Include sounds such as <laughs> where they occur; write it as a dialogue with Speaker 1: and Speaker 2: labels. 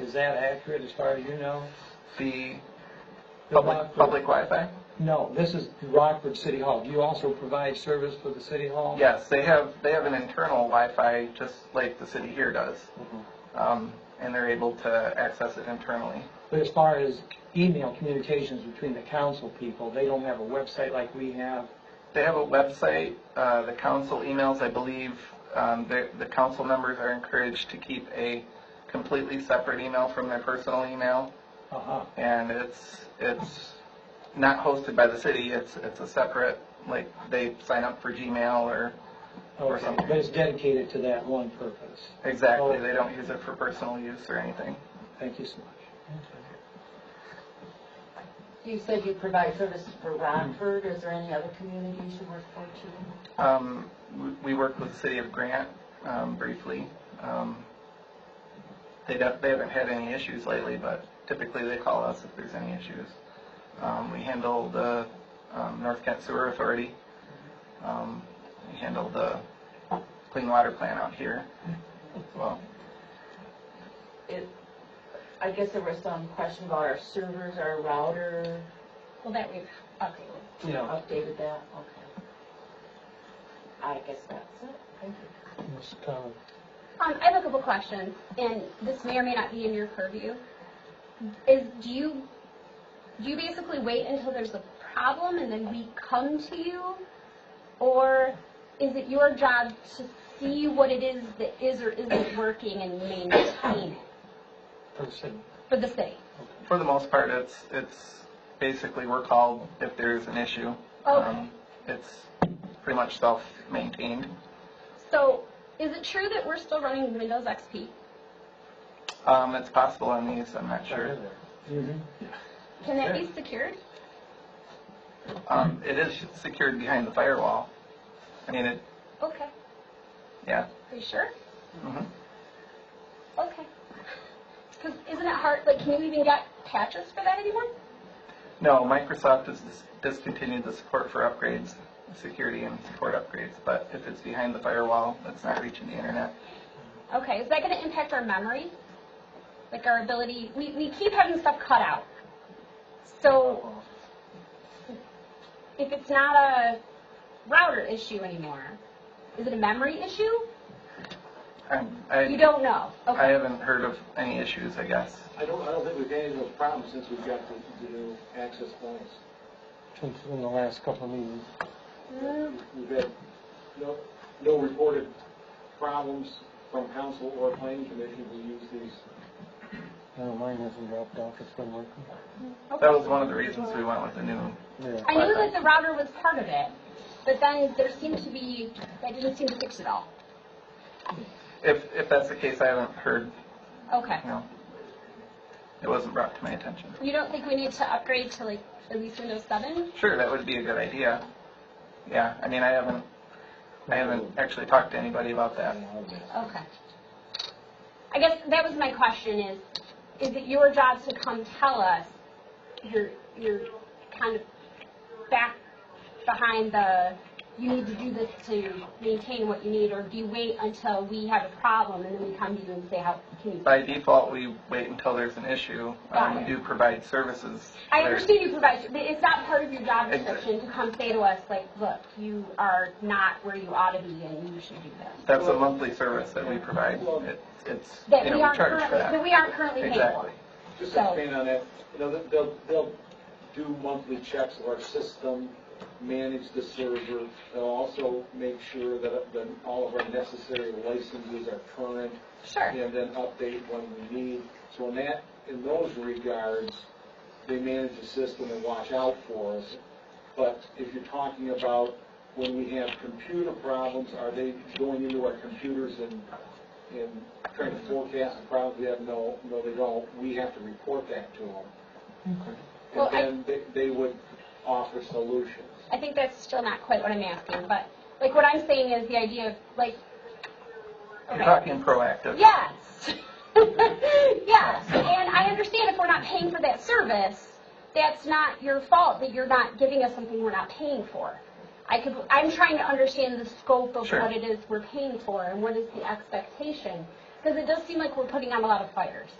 Speaker 1: Is that accurate as far as you know?
Speaker 2: The
Speaker 1: The
Speaker 2: public,
Speaker 1: Rockford-
Speaker 2: public Wi-Fi?
Speaker 1: No, this is Rockford City Hall. Do you also provide service for the city hall?
Speaker 2: Yes, they have, they have an internal Wi-Fi, just like the city here does.
Speaker 1: Mhm.
Speaker 2: Um, and they're able to access it internally.
Speaker 1: But as far as email communications between the council people, they don't have a website like we have.
Speaker 2: They have a website, uh, the council emails, I believe, um, the, the council members are encouraged to keep a completely separate email from their personal email,
Speaker 1: Uh-huh.
Speaker 2: and it's, it's not hosted by the city, it's, it's a separate, like, they sign up for Gmail or,
Speaker 1: Okay,
Speaker 2: something.
Speaker 1: but it's dedicated to that one purpose.
Speaker 2: exactly,
Speaker 1: Oh.
Speaker 2: they don't use it for personal use or anything.
Speaker 1: Thank you so much.
Speaker 3: You said you provide services for Rockford, is there any other communities you work for too?
Speaker 2: Um, we- we worked with the city of Grant, um, briefly. Um, they don't, they haven't had any issues lately, but typically they call us if there's any issues. Um, we handle the, um, North Kent Sewer Authority. Um, we handle the clean water plant out here as well.
Speaker 3: It, I guess there was some question about our servers, our router,
Speaker 4: Well, that we've updated.
Speaker 1: Yeah.
Speaker 3: updated that, okay. I guess that's it, thank you.
Speaker 1: Uh,
Speaker 4: Um, I have a couple questions, and this may or may not be in your purview. Is, do you, do you basically wait until there's a problem and then we come to you? Or is it your job to see what it is that is or isn't working and maintain it
Speaker 1: For the city.
Speaker 4: for the city?
Speaker 2: For the most part, it's, it's basically we're called if there's an issue.
Speaker 4: Okay.
Speaker 2: Um, It's pretty much self-maintained.
Speaker 4: So, is it true that we're still running Windows XP?
Speaker 2: Um, it's possible on these, I'm not sure.
Speaker 1: Mm-hmm.
Speaker 4: Can that be secured?
Speaker 2: Um, it is secured behind the firewall. I mean, it,
Speaker 4: Okay.
Speaker 2: yeah.
Speaker 4: Are you sure?
Speaker 2: Mhm.
Speaker 4: Okay. Because isn't it hard, like, can you even get patches for that anymore?
Speaker 2: No, Microsoft has dis- discontinued the support for upgrades, security and support upgrades, but if it's behind the firewall, it's not reaching the internet.
Speaker 4: Okay, is that going to impact our memory? Like our ability, we, we keep having stuff cut out. So if it's not a router issue anymore, is it a memory issue?
Speaker 2: I'm-
Speaker 4: You
Speaker 2: I,
Speaker 4: don't know.
Speaker 2: I
Speaker 4: Okay.
Speaker 2: haven't heard of any issues, I guess.
Speaker 5: I don't, I don't think we've had any of those problems since we've got the, the new access points.
Speaker 6: Since in the last couple of meetings.
Speaker 4: Mm,
Speaker 5: We've had no, no reported problems from council or planning commission who use these.
Speaker 6: No, uh, mine hasn't dropped off, it's been working.
Speaker 2: That was one of the reasons we went with the new,
Speaker 6: Yeah.
Speaker 4: I knew that the router was part of it, but then there seemed to be, that didn't seem to fix it all.
Speaker 2: if, if that's the case, I haven't heard,
Speaker 4: Okay.
Speaker 2: you know, it wasn't brought to my attention.
Speaker 4: You don't think we need to upgrade to like at least Windows 7?
Speaker 2: Sure, that would be a good idea. Yeah, I mean, I haven't, I haven't actually talked to anybody about that.
Speaker 4: Okay. I guess that was my question is, is it your job to come tell us you're, you're kind of back behind the, you need to do this to maintain what you need, or do you wait until we have a problem and then we come to you and say, how can you?
Speaker 2: By default, we wait until there's an issue. Um, We do provide services.
Speaker 4: I
Speaker 2: There's-
Speaker 4: understand you provide, but it's not part of your job description to come say to us, like, look, you are not where you ought to be and you should do this.
Speaker 2: That's a monthly service that we provide. It- It's,
Speaker 4: That
Speaker 2: you know,
Speaker 4: we
Speaker 2: we
Speaker 4: aren't
Speaker 2: charge for
Speaker 4: currently, that
Speaker 2: that.
Speaker 4: we aren't currently paying for.
Speaker 2: Exactly.
Speaker 5: Just
Speaker 4: So-
Speaker 5: expand on that, you know, they'll- they'll, they'll do monthly checks of our system, manage the server. They'll also make sure that, that all of our necessary licenses are current.
Speaker 4: Sure.
Speaker 5: and then update when we need. So in that, in those regards, they manage the system and watch out for us. But if you're talking about when we have computer problems, are they going into our computers and, and trying to forecast the problems we have? No, no, they don't. We have to report that to them.
Speaker 4: Mm-hmm. Well,
Speaker 5: And
Speaker 4: I-
Speaker 5: then they, they would offer solutions.
Speaker 4: I think that's still not quite what I'm asking, but like what I'm saying is the idea of like,
Speaker 2: You're talking proactive.
Speaker 4: yes, <laughs> yes, and I understand if we're not paying for that service, that's not your fault that you're not giving us something we're not paying for. I could, I'm trying to understand the scope of
Speaker 2: Sure.
Speaker 4: what it is we're paying for and what is the expectation, because it does seem like we're putting out a lot of fires.